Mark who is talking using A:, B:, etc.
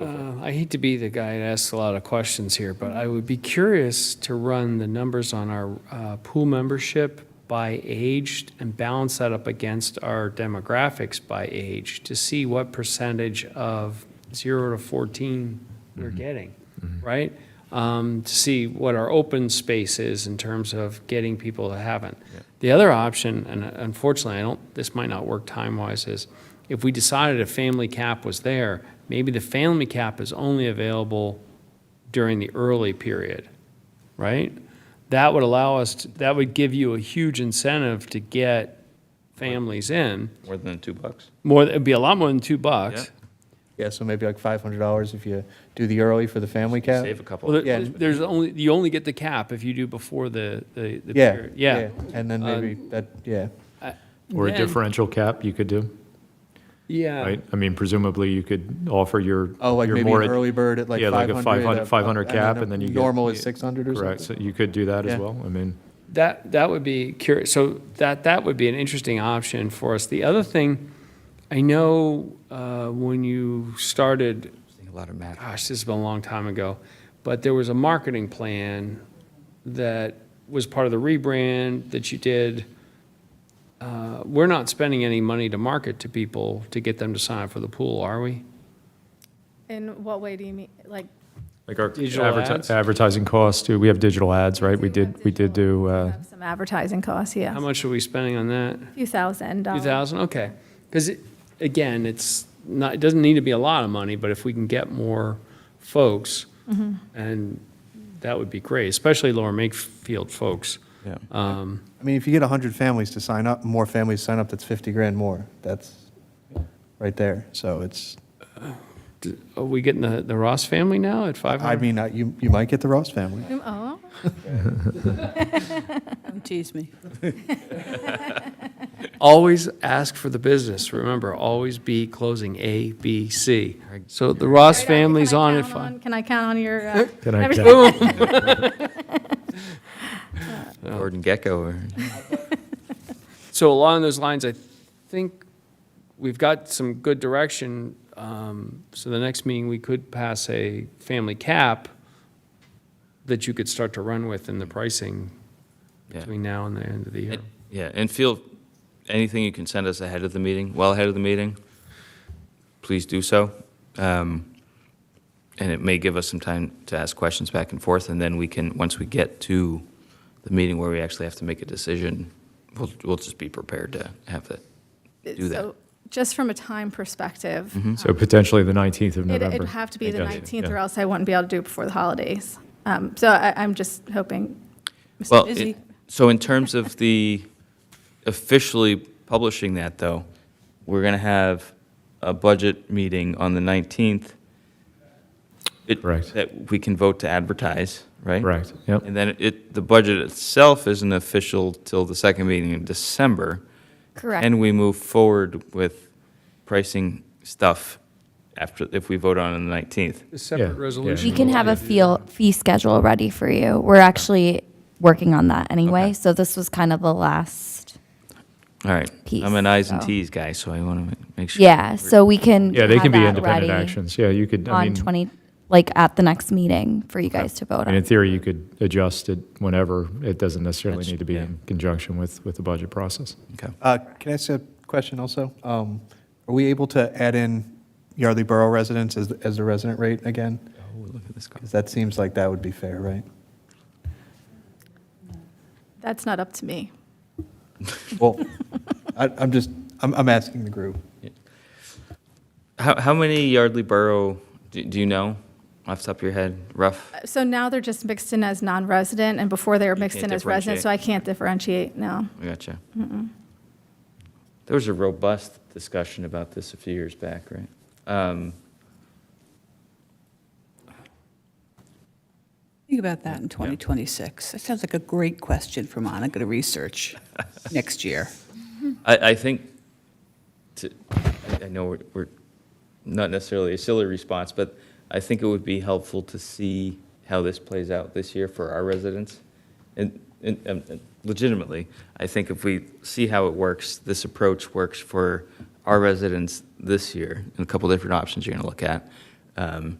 A: Uh, I hate to be the guy that asks a lot of questions here, but I would be curious to run the numbers on our uh, pool membership by age and balance that up against our demographics by age to see what percentage of zero to 14 we're getting, right? Um, To see what our open space is in terms of getting people that haven't. The other option, and unfortunately, I don't, this might not work time-wise, is if we decided a family cap was there, maybe the family cap is only available during the early period, right? That would allow us, to- that would give you a huge incentive to get families in.
B: More than two bucks?
A: More, it'd be a lot more than two bucks.
C: Yeah, so maybe like five hundred dollars if you do the early for the family cap.
B: Save a
A: Well,
B: couple.
A: there-
C: Yeah.
A: there's only, you only get the cap if you do before the, the the
C: Yeah,
A: period.
C: yeah, and
A: Uh,
C: then maybe that, yeah,
D: Or a
A: Then-
D: differential cap you could do,
A: Yeah.
D: right? I mean, presumably you could offer your.
C: oh, like
D: your
C: maybe
D: more
C: an
D: ad-
C: early bird at like
D: Yeah,
C: five
D: like
C: hundred. uh,
D: a 500, 500 cap and then you get.
C: Normal is six hundred or
D: Correct,
C: something.
D: so you could do that
C: Yeah.
D: as well, I mean.
A: That, that would be curious, so that, that would be an interesting option for us. The other thing, I know uh, when you started,
B: A lot of math.
A: gosh, this has been a long time ago, but there was a marketing plan that was part of the rebrand that you did. Uh, We're not spending any money to market to people to get them to sign up for the pool, are we?
E: In what way do you mean? Like,
D: Like our
A: Digital
D: adverti-
A: ads?
D: advertising costs, too. We have digital ads, right? We did, we did do, uh,
E: Some advertising costs, yeah.
A: How much are we spending on that?
E: A few thousand
A: Two
E: dollars.
A: thousand, okay. Because, again, it's not, it doesn't need to be a lot of money, but if we can get more folks,
E: Mm-hmm.
A: and that would be great, especially Lower Makefield folks.
B: Yeah.
A: Um,
C: I mean, if you get hundred families to sign up, more families sign up, that's fifty grand more, that's right there, so it's,
A: d- Are we getting the, the Ross family now at five
C: I
A: hundred?
C: mean, I- you, you might get the Ross family.
E: Um, Oh,
F: Don't tease me.
A: Always ask for the business, remember, always be closing A, B, C. So the Ross
E: Right on.
A: family's
E: Can I
A: on at
E: count
A: five.
E: Can I count on your, uh,
D: Can I
E: everything?
D: count?
B: Gordon Gecko or?
A: So along those lines, I think we've got some good direction. Um, So the next meeting, we could pass a family cap that you could start to run with in the pricing
B: Yeah.
A: between now and the end of the year.
B: Yeah, and feel, anything you can send us ahead of the meeting, well ahead of the meeting, please do so. Um, And it may give us some time to ask questions back and forth, and then we can, once we get to the meeting where we actually have to make a decision, we'll, we'll just be prepared to have that, do that.
E: So, Just from a time perspective,
D: so potentially the 19th of
E: it-
D: Mm-hmm. November.
E: it'd have to be
D: I
E: the
D: guess.
E: 19th
D: Yeah.
E: or else I wouldn't be able to do it before the holidays. Um, So I, I'm just hoping. Mr.
B: Well,
F: busy.
B: it- so in terms of the officially publishing that, though, we're going to have a budget meeting on the 19th. It-
D: Correct.
B: That we can vote to advertise, right?
D: Correct, yep.
B: And then it, the budget itself isn't official till the second meeting in December.
E: Correct.
B: And we move forward with pricing stuff after, if we vote on it on the 19th.
A: A
D: Yeah,
A: separate
D: yeah.
A: resolution.
G: We can have a feel, fee schedule ready for you. We're actually working on that
B: Okay.
G: anyway, so this was kind of the last,
B: All right.
G: Peace,
B: I'm an eyes and
G: so.
B: Ts guy, so I want to make sure.
G: yeah, so we can.
D: Yeah, they
G: have
D: can be
G: that
D: independent
G: ready
D: actions. Yeah, you could, I
G: On
D: mean,
G: 20, like at the next meeting for you guys to vote
D: and in
G: on.
D: theory, you could adjust it whenever. It doesn't necessarily
B: That's-
D: need to be
B: yeah.
D: in conjunction with, with the budget process.
B: Okay. Oh,
C: Uh, Can I ask a question also? Um, Are we able to add in Yardley Borough residents as, as the resident rate again?
B: Oh, look at this guy.
C: Because that seems like that would be fair, right?
E: That's not up to me.
C: Well, I, I'm just, I'm, I'm asking the group.
B: How, how many Yardley Borough do, do you know off the top of your head, rough?
E: So now they're just mixed in as non-resident, and before they were mixed
B: can't
E: in as resident,
B: differentiate.
E: so I can't differentiate, no.
B: I gotcha. There was a robust discussion about this a few years back, right? Um,
F: Think about that in 2026. That sounds like a great question for Monica to research next year.
B: I, I think, to, I- I know we're, we're not necessarily a silly response, but I think it would be helpful to see how this plays out this year for our residents. And, and um, and legitimately, I think if we see how it works, this approach works for our residents this year, and a couple different options you're going to look at. um,